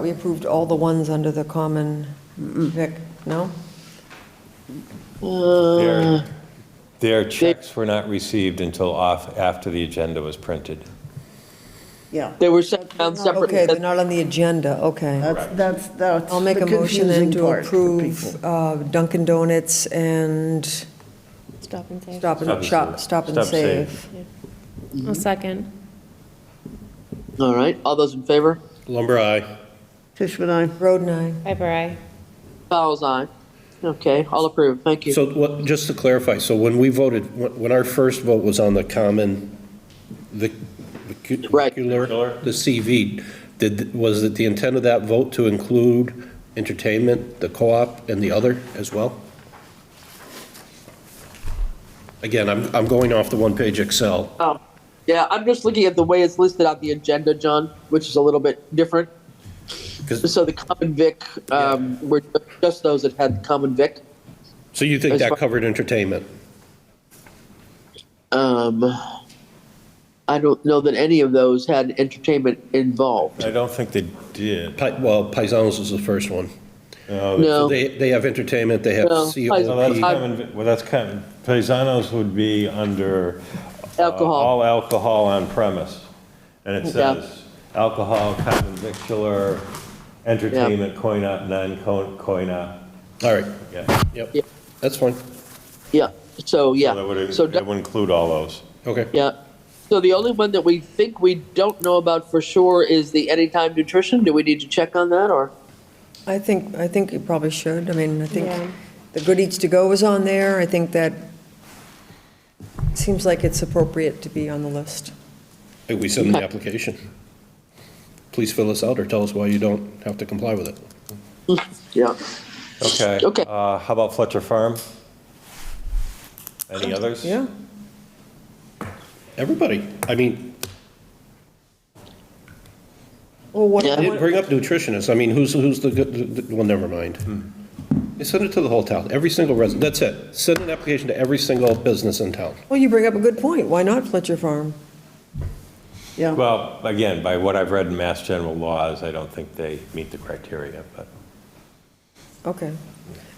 We approved all the ones under the common vic, no? Their- Their checks were not received until off, after the agenda was printed. Yeah, They were sent down Okay, they're separately. not on the agenda, okay. that's, that's, that's. I'll make Uh, the a motion then confusing to part for approve people. uh, Dunkin' Donuts and Stop and save. Stop Stop and and Shop, Save. Stop and Stop Save. Save. A second. All right, all those in favor? Lumber, aye. Fishman, I, Road nine, Piper, aye. Fowles, aye. Okay, all approved, thank you. So what, just to clarify, so when we voted, when when our first vote was on the common, the Right. vehicular, the CV, did, was it the intent of that vote to include entertainment, the co-op, and the other as well? Again, I'm, I'm going off the one-page Excel. Oh, yeah, I'm just looking at the way it's listed on the agenda, John, which is a little bit different. 'Cause- So the common vic, um, were just those that had the common vic. So you think As that far- covered entertainment? Um, I don't know that any of those had entertainment involved. I don't think they did. Pi- Well, Paisanos was the first one. No, They, they have entertainment, they have No, Well, that's COP. I- common, well, that's common, Paisanos would be under. uh, alcohol, All alcohol on premise. And it Yeah. says, alcohol, common victular, entertainment, coin op, non-coin op. All right, Yeah, Yeah. yep, that's fine, yeah, so, yeah. so that would, So that would include all those. okay. Yeah. So the only one that we think we don't know about for sure is the Anytime Nutrition. Do we need to check on that or? I think, I think you probably should, I mean, I Yeah. think the Good Eats To Go was on there, I think that seems like it's appropriate to be on the list. Hey, We send the application. Please fill this out or tell us why you don't have to comply with it. Yeah. Okay. Okay. Uh, how about Fletcher Farm? Any others? Yeah, Everybody, I mean, well, what, Yeah. I didn't bring up nutritionists, I mean, who's, who's the, good- the- the- well, never mind. They send it to the whole town, every single resident, that's it. Send an application to every single business in town. well, you bring up a good point, why not Fletcher Farm? yeah. Well, again, by what I've read in Mass General laws, I don't think they meet the criteria, but. Okay.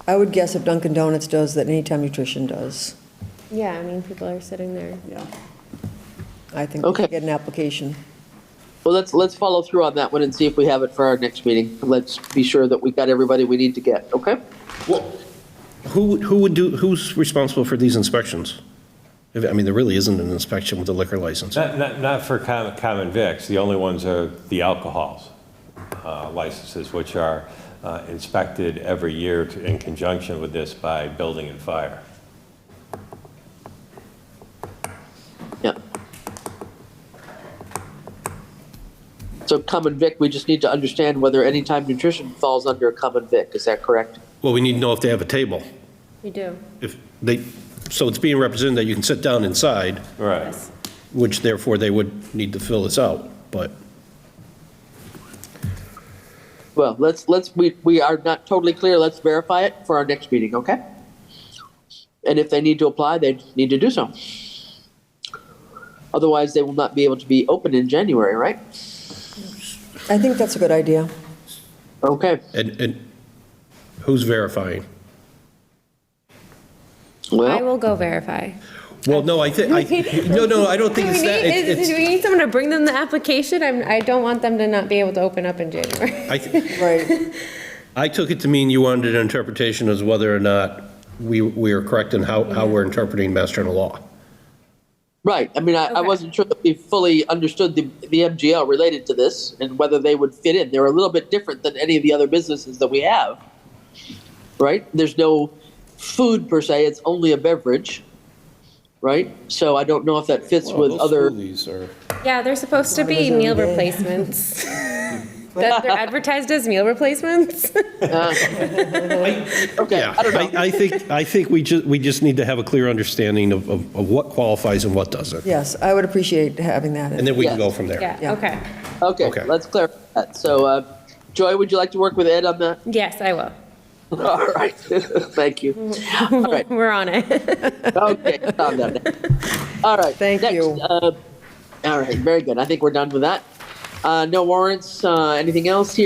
I would guess if Dunkin' Donuts does, that Anytime Nutrition does. Yeah, I mean, people are sitting there. yeah. I think we Okay. should get an application. Well, let's, let's follow through on that one and see if we have it for our next meeting. Let's be sure that we got everybody we need to get, okay? Who, would- who would do, who's responsible for these inspections? If- I mean, there really isn't an inspection with a liquor license. Not, not, not for common, common vics, the only ones are the alcohols uh, licenses, which are uh, inspected every year to- in conjunction with this by building and fire. Yeah. So common vic, we just need to understand whether Anytime Nutrition falls under a common vic. Is that correct? Well, we need to know if they have a table. You do. If they, so it's being represented that you can sit down inside, Right. which therefore they would need to fill this out, but. Well, let's, let's, we, we are not totally clear. Let's verify it for our next meeting, okay? And if they need to apply, they need to do so. Otherwise, they will not be able to be open in January, right? I think that's a good idea. Okay, And, and who's verifying? I well, will go verify. Well, no, I think, I, no, no, I don't think Do we it's that, need- is- it's, Do we it's- need someone to bring them the application? I'm, I don't want them to not be able to open up in January. I, th- Right. I took it to mean you wanted an interpretation as whether or not we, we are correct in how, how we're interpreting Mass General law. right, I mean, I, I Okay. wasn't sure that we fully understood the, the MGL related to this and whether they would fit in. They're a little bit different than any of the other businesses that we have, right? There's no food per se, it's only a beverage, right? So I don't know if that fits with other. Yeah, they're supposed to be meal replacements. That they're advertised as meal replacements? Okay, Yeah, I don't know. I, I think, I think we just, we just need to have a clear understanding of, of of what qualifies and what doesn't. Yes, I would appreciate having that. in. And then we can Yeah. go from there. Yeah, Yeah. okay. Okay, Okay. let's clarify that. So, uh, Joy, would you like to work with Ed on that? Yes, I will. All right, thank you. All right, We're on it. okay, calm down. All right. Thank next, you. uh, All right, very good. I think we're done with that. Uh, No warrants, uh, anything else here?